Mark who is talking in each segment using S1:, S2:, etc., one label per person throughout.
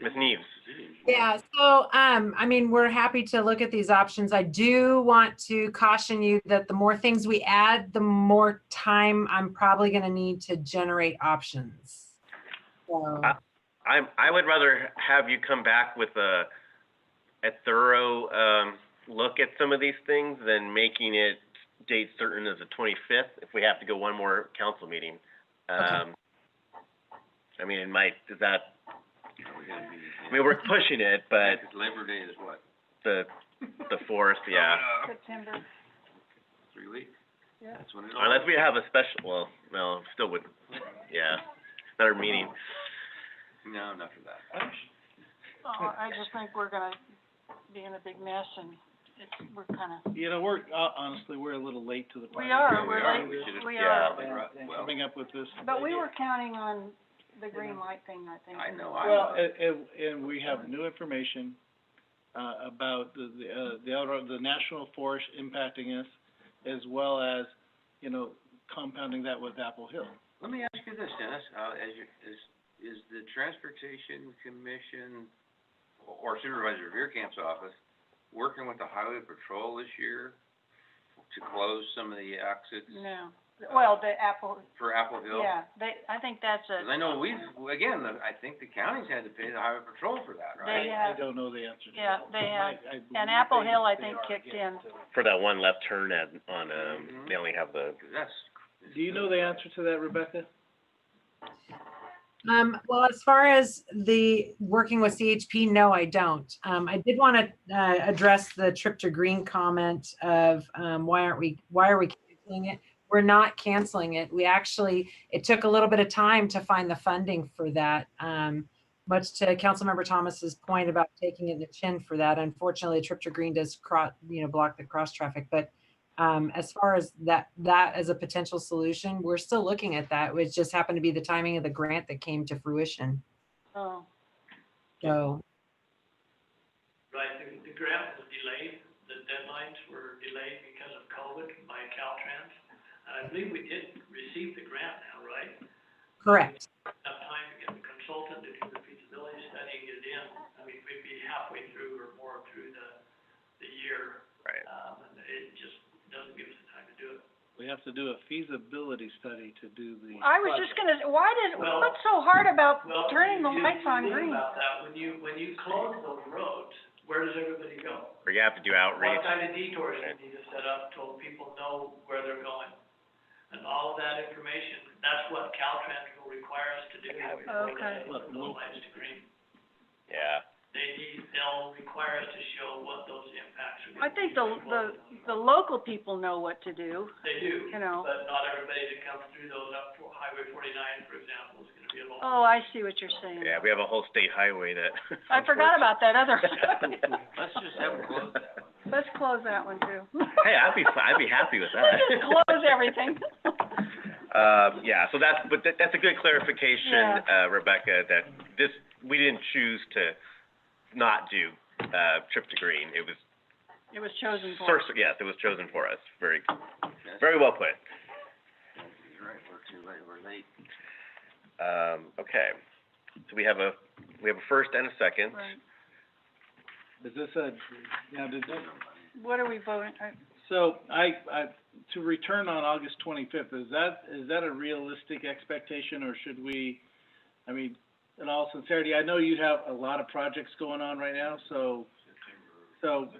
S1: Ms. uh, Neves?
S2: Yeah, so, um, I mean, we're happy to look at these options. I do want to caution you that the more things we add, the more time I'm probably gonna need to generate options. So,
S1: Uh, I, I would rather have you come back with a, a thorough, um, look at some of these things than making it date certain as the twenty-fifth, if we have to go one more council meeting. Um, I mean, it might, is that, I mean, we're pushing it, but
S3: Labor Day is what? uh,
S1: the, the fourth, yeah.
S4: September.
S3: Three weeks?
S4: Yeah.
S3: That's when it all.
S1: Unless we have a special, well, no, still would, yeah, another meeting.
S3: No, not for that.
S4: Well, Oh, I just think we're gonna be in a big mess and it's, we're kinda,
S5: You know, we're, uh, honestly, we're a little late to the party.
S4: we are,
S3: we
S4: we're
S3: are.
S4: Um, like,
S3: We should've-
S4: we
S1: yeah.
S4: are.
S5: And- and
S3: Well-
S5: Coming up with this.
S4: But we
S5: idea.
S4: were counting on the green light thing, I think.
S3: I know, I
S5: Well,
S3: know.
S5: and, and, and we have new information, uh, about the, the, uh, the outer, the national forest impacting us, as well as, you know, compounding that with Apple Hill.
S3: Let me ask you this, Dennis, uh, as you, is, is the Transportation Commission or Supervisor Veerkamp's office working with the Highway Patrol this year to close some of the exits
S4: No, well, the Apple,
S3: for Apple Hill?
S4: yeah, they, I think that's
S3: Cause I
S4: a,
S3: know we've, again, the- I think the counties had to pay the Highway Patrol for that,
S4: They
S3: right?
S5: I
S4: have-
S5: don't know the answer to
S4: yeah,
S5: that.
S4: they have-
S5: I- I believe
S4: and Apple
S5: they-
S4: Hill, I
S5: they
S4: think,
S5: are
S4: kicked
S5: again.
S4: in.
S1: For that one left turn at, on, um, they only have the,
S3: 'Cause that's.
S5: Do you know the answer to that, Rebecca?
S2: Um, well, as far as the working with CHP, no, I don't. Um, I did want to, uh, address the trip to green comment of, um, why aren't we, why are we canceling it? We're not canceling it. We actually, it took a little bit of time to find the funding for that. Um, much to Councilmember Thomas's point about taking it in the chin for that. Unfortunately, trip to green does cross, you know, block the cross traffic, but um, as far as that, that as a potential solution, we're still looking at that. It just happened to be the timing of the grant that came to fruition.
S4: Oh,
S2: So,
S6: Right, the, the grant was delayed, the deadlines were delayed because of COVID by Caltrans. And I believe we did receive the grant now, right?
S2: correct.
S6: Enough time to get the consultant to do the feasibility study and get it in. I mean, we'd be halfway through or more through the, the year.
S1: Right.
S6: Um, and it just doesn't give us the time to do it.
S5: We have to do a feasibility study to do the.
S4: I was just gonna, why did,
S6: Well-
S4: what's so hard about
S6: Well,
S4: turning the
S6: you-
S4: lights
S6: you
S4: on
S6: think
S4: green?
S6: About that, when you, when you close those roads, where does everybody go?
S1: or you have to do outreach.
S6: What kind of detours we need to set up till people know where they're going? And all of that information, that's what Caltrans will require us to do before
S4: Okay.
S6: they put the lights to green.
S1: Yeah.
S6: They need, they'll require us to show what those impacts are
S4: I
S6: gonna be.
S4: think the, the, the local people know what to do,
S6: They do,
S4: you know.
S6: but not everybody that comes through those up for Highway forty-nine, for example, is gonna be able.
S4: Oh, I see what you're saying.
S1: Yeah, we have a whole state highway that.
S4: I forgot about that other one.
S3: Let's just have them close that one.
S4: Let's close that one too.
S1: Hey, I'd be, fi- I'd be happy with that.
S4: Let's just close everything.
S1: Um, yeah, so that's, but that, that's a good clarification, uh, Rebecca, that this, we didn't choose to not do, uh, trip to green. It was,
S4: It was chosen for.
S1: first, yes, it was chosen for us. Very, very well put.
S3: You're right, we're too late, we're late.
S1: Um, okay. So we have a, we have a first and a second.
S4: Right.
S5: Is this a, now, did this,
S4: What are we voting, I,
S5: So I, I, to return on August twenty-fifth, is that, is that a realistic expectation or should we, I mean, in all sincerity, I know you have a lot of projects going on right now, so, so,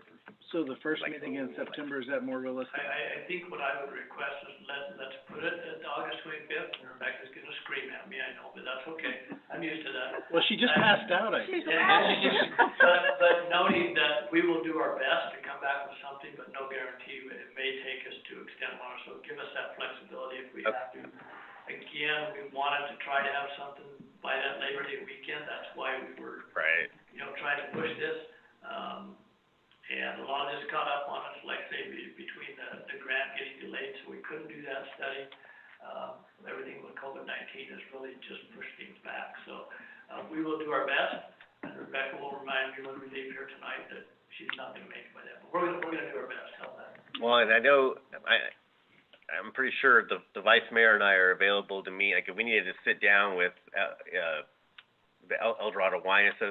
S5: so the first
S1: Like-
S5: meeting in September, is that more
S6: I,
S5: realistic?
S6: I, I think what I would request is let, let's put it at August twenty-fifth, and Rebecca's gonna scream at me, I know, but that's okay, I'm used to that.
S5: Well, she just passed out, I,
S4: she's
S6: Yeah.
S4: laughing.
S6: But, but noting that we will do our best to come back with something, but no guarantee, but it may take us to extend longer, so give us that flexibility if we
S1: Okay.
S6: have to. Again, we wanted to try to have something by that Labor Day weekend, that's why we were,
S1: Right.
S6: you know, trying to push this. Um, and a lot of this caught up on us, like say, be- between the, the grant getting delayed, so we couldn't do that study. Um, everything with COVID nineteen has really just pushed things back, so, uh, we will do our best. And Rebecca will remind me when we leave here tonight that she's not gonna make it by then, but we're gonna, we're gonna do our best, how's that?
S1: Well, and I know, I, I'm pretty sure the, the vice mayor and I are available to meet, like, if we needed to sit down with, uh, uh, the El El Dorado Wine Association